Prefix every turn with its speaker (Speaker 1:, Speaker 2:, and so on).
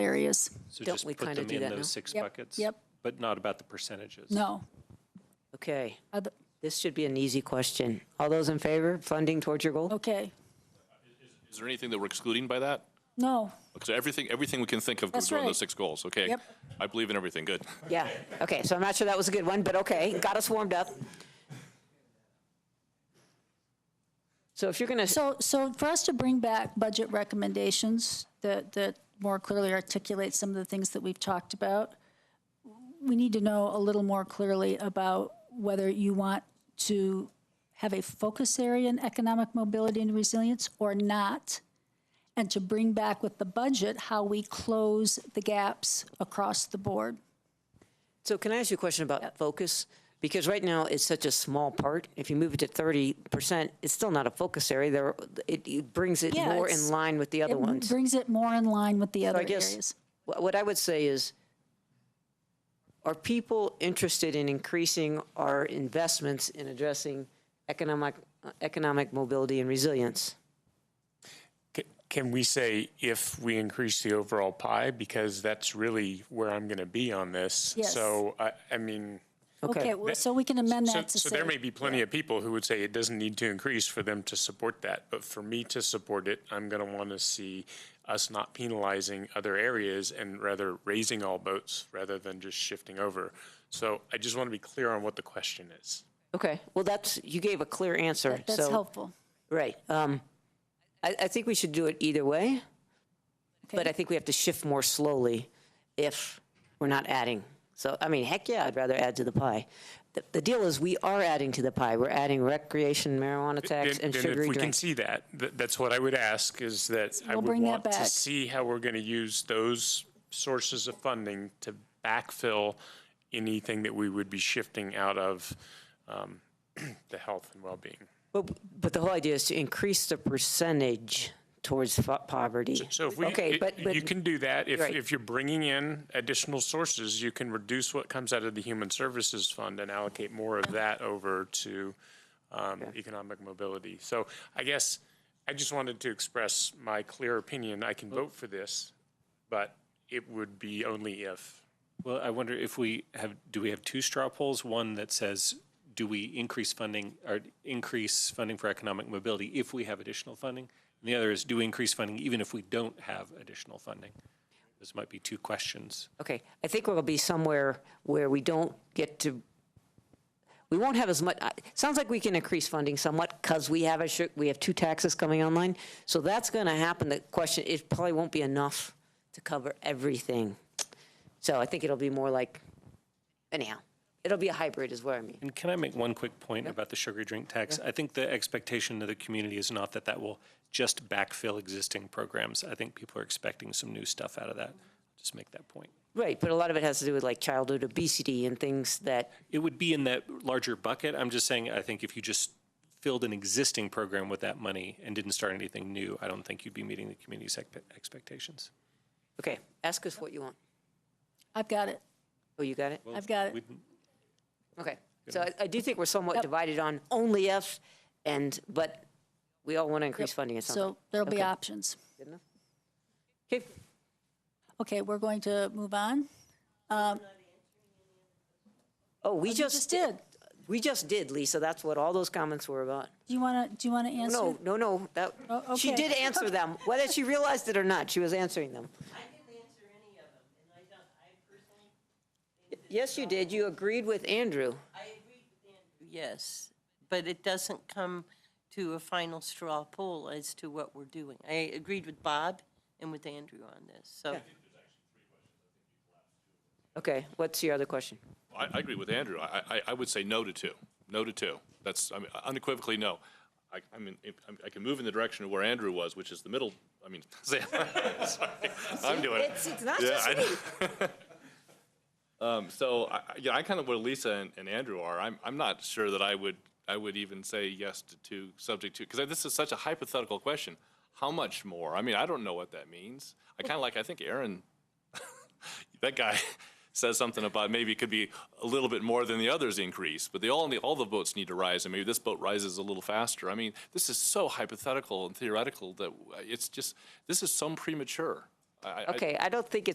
Speaker 1: areas.
Speaker 2: So
Speaker 3: Don't
Speaker 2: just
Speaker 3: we
Speaker 2: put
Speaker 3: kinda
Speaker 2: them
Speaker 3: do
Speaker 2: in
Speaker 3: that now?
Speaker 2: those six
Speaker 1: Yep,
Speaker 2: buckets?
Speaker 1: yep.
Speaker 2: But not about the percentages?
Speaker 1: No.
Speaker 3: Okay,
Speaker 1: Other-
Speaker 3: this should be an easy question. All those in favor, funding towards your goal?
Speaker 1: Okay.
Speaker 4: Is there anything that we're excluding by that?
Speaker 1: No.
Speaker 4: So everything, everything we can think of
Speaker 1: That's
Speaker 4: goes on
Speaker 1: right.
Speaker 4: those six goals, okay?
Speaker 1: Yep.
Speaker 4: I believe in everything, good.
Speaker 3: Yeah, okay, so I'm not sure that was a good one, but okay, got us warmed up. So if you're going to,
Speaker 1: So, so for us to bring back budget recommendations that, that more clearly articulate some of the things that we've talked about, we need to know a little more clearly about whether you want to have a focus area in economic mobility and resilience or not, and to bring back with the budget how we close the gaps across the board.
Speaker 3: so can I ask you a question about focus? Because right now, it's such a small part. If you move it to 30%, it's still not a focus area. There, it- it brings it
Speaker 1: Yeah,
Speaker 3: more in
Speaker 1: it's-
Speaker 3: line with the other ones.
Speaker 1: It brings it more in line with the other
Speaker 3: I guess-
Speaker 1: areas.
Speaker 3: Wh- What I would say is, are people interested in increasing our investments in addressing economic, uh, economic mobility and resilience?
Speaker 5: C- Can we say if we increase the overall pie? Because that's really where I'm going to be on this.
Speaker 1: Yes.
Speaker 5: So, I, I mean,
Speaker 1: Okay, well, so we can amend
Speaker 5: so,
Speaker 1: that to
Speaker 5: so
Speaker 1: say.
Speaker 5: there may be plenty of people who would say it doesn't need to increase for them to support that. But for me to support it, I'm going to want to see us not penalizing other areas and rather raising all boats rather than just shifting over. So I just want to be clear on what the question is.
Speaker 3: Okay, well, that's, you gave a clear answer,
Speaker 1: That's
Speaker 3: so,
Speaker 1: helpful.
Speaker 3: right. um, I, I think we should do it either way, but
Speaker 1: Okay.
Speaker 3: I think we have to shift more slowly if we're not adding. So, I mean, heck yeah, I'd rather add to the pie. The, the deal is, we are adding to the pie. We're adding recreation, marijuana tax,
Speaker 5: Then-
Speaker 3: and
Speaker 5: then
Speaker 3: sugary
Speaker 5: If we can
Speaker 3: drinks.
Speaker 5: see that, th- that's what I would ask, is that I
Speaker 1: We'll
Speaker 5: would
Speaker 1: bring that
Speaker 5: want to
Speaker 1: back.
Speaker 5: see how we're going to use those sources of funding to backfill anything that we would be shifting out of um, the health and well-being.
Speaker 3: But, but the whole idea is to increase the percentage towards fo- poverty.
Speaker 5: So if we,
Speaker 3: Okay,
Speaker 5: it-
Speaker 3: but, but,
Speaker 5: you can do that. If,
Speaker 3: Right.
Speaker 5: if you're bringing in additional sources, you can reduce what comes out of the Human Services Fund and allocate more of that over to um, economic mobility. So I guess I just wanted to express my clear opinion. I can vote for this, but it would be only if.
Speaker 2: Well, I wonder if we have, do we have two straw polls? One that says, do we increase funding or increase funding for economic mobility if we have additional funding? And the other is, do we increase funding even if we don't have additional funding? Those might be two questions.
Speaker 3: okay, I think we'll be somewhere where we don't get to, we won't have as much, I- sounds like we can increase funding somewhat because we have a, su- we have two taxes coming online. So that's going to happen. The question, it probably won't be enough to cover everything. So I think it'll be more like, anyhow, it'll be a hybrid is what I mean.
Speaker 2: And can I make one quick point about the sugar drink tax? I think the expectation of the community is not that that will just backfill existing programs. I think people are expecting some new stuff out of that. Just make that point.
Speaker 3: Right, but a lot of it has to do with like childhood obesity and things that
Speaker 2: It would be in that larger bucket. I'm just saying, I think if you just filled an existing program with that money and didn't start anything new, I don't think you'd be meeting the community's expe- expectations.
Speaker 3: Okay, ask us what you want.
Speaker 1: I've got it.
Speaker 3: Oh, you got it?
Speaker 1: I've got it.
Speaker 2: We'd-
Speaker 3: Okay. So I, I do think we're somewhat divided on only F and, but we all want to increase funding at something.
Speaker 1: So there'll be
Speaker 3: Okay.
Speaker 1: options.
Speaker 3: Okay,
Speaker 1: Okay, we're going to move on. Um,
Speaker 3: oh, we
Speaker 1: you
Speaker 3: just.
Speaker 1: just did.
Speaker 3: We just did, Lisa. That's what all those comments were about.
Speaker 1: Do you want to, do you want to answer?
Speaker 3: No, no, no, that,
Speaker 1: Oh,
Speaker 3: she
Speaker 1: okay.
Speaker 3: did answer them. Whether she realized it or not, she was answering them.
Speaker 6: I didn't answer any of them, and I don't, I personally,
Speaker 3: Yes, you did. You agreed with Andrew.
Speaker 6: I agreed with Andrew. Yes, but it doesn't come to a final straw poll as to what we're doing. I agreed with Bob and with Andrew on this, so.
Speaker 3: Okay, what's your other question?
Speaker 4: I, I agree with Andrew. I, I, I would say no to two, no to two. That's, I mean, unequivocally, no. I, I mean, if- I can move in the direction of where Andrew was, which is the middle, I mean, sorry, I'm doing it.
Speaker 3: It's, it's not
Speaker 4: Yeah,
Speaker 3: just
Speaker 4: I
Speaker 3: me.
Speaker 4: Um, so, I, I- yeah, I kind of where Lisa and, and Andrew are. I'm, I'm not sure that I would, I would even say yes to two, subject to, because this is such a hypothetical question. How much more? I mean, I don't know what that means. I kind of like, I think Aaron, that guy says something about maybe it could be a little bit more than the others increase, but they all need, all the boats need to rise, and maybe this boat rises a little faster. I mean, this is so uh, hypothetical and theoretical that it's just, this is so premature. I- I,
Speaker 3: Okay, I don't think it's.